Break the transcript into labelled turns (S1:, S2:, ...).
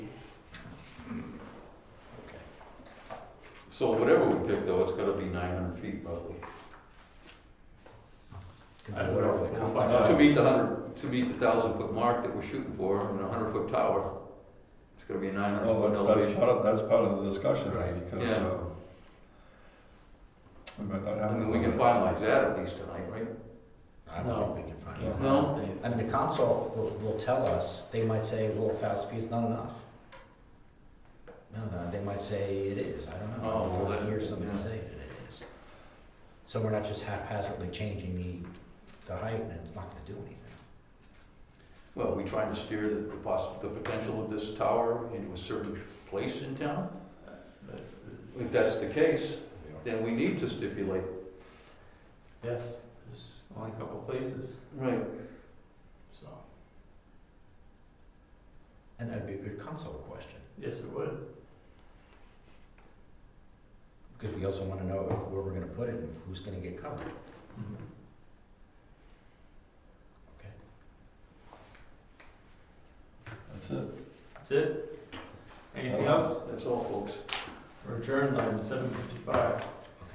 S1: So whatever we pick though, it's gotta be nine hundred feet roughly,
S2: I don't know.
S3: Whatever they come
S2: We'll find
S3: up
S2: out.
S1: to meet Uh, the hundred, to meet the thousand foot mark that we're shooting for, and a hundred foot tower. It's gonna be a nine
S3: Oh,
S1: hundred
S4: Well, that's,
S1: foot
S4: that's
S1: elevation.
S4: part of, that's part of the discussion, right,
S3: Right.
S4: because,
S1: Yeah.
S4: uh, we might not have
S1: I
S4: to.
S1: mean, we can finalize that at least tonight, right?
S3: I don't think we can find out.
S1: No.
S3: I mean, the council will, will tell us, they might say, well, a thousand feet is not enough. No, no, they might say it is, I don't know.
S1: Oh, well,
S3: I
S1: then,
S3: hear somebody
S1: yeah.
S3: say that it is. So we're not just haphazardly changing the, the height and it's not gonna do anything.
S1: Well, are we trying to steer the, the poss, the potential of this tower into a certain place in town? If that's the case, then we need to stipulate.
S2: Yes, there's only a couple places,
S1: Right.
S2: so,
S3: And that'd be a good council question,
S2: yes, it would.
S3: because we also wanna know if- where we're gonna put it and who's gonna get covered.
S4: That's it.
S2: That's it? Anything
S4: Well,
S2: else?
S1: That's all, folks.
S2: We're adjourned at seven fifty-five.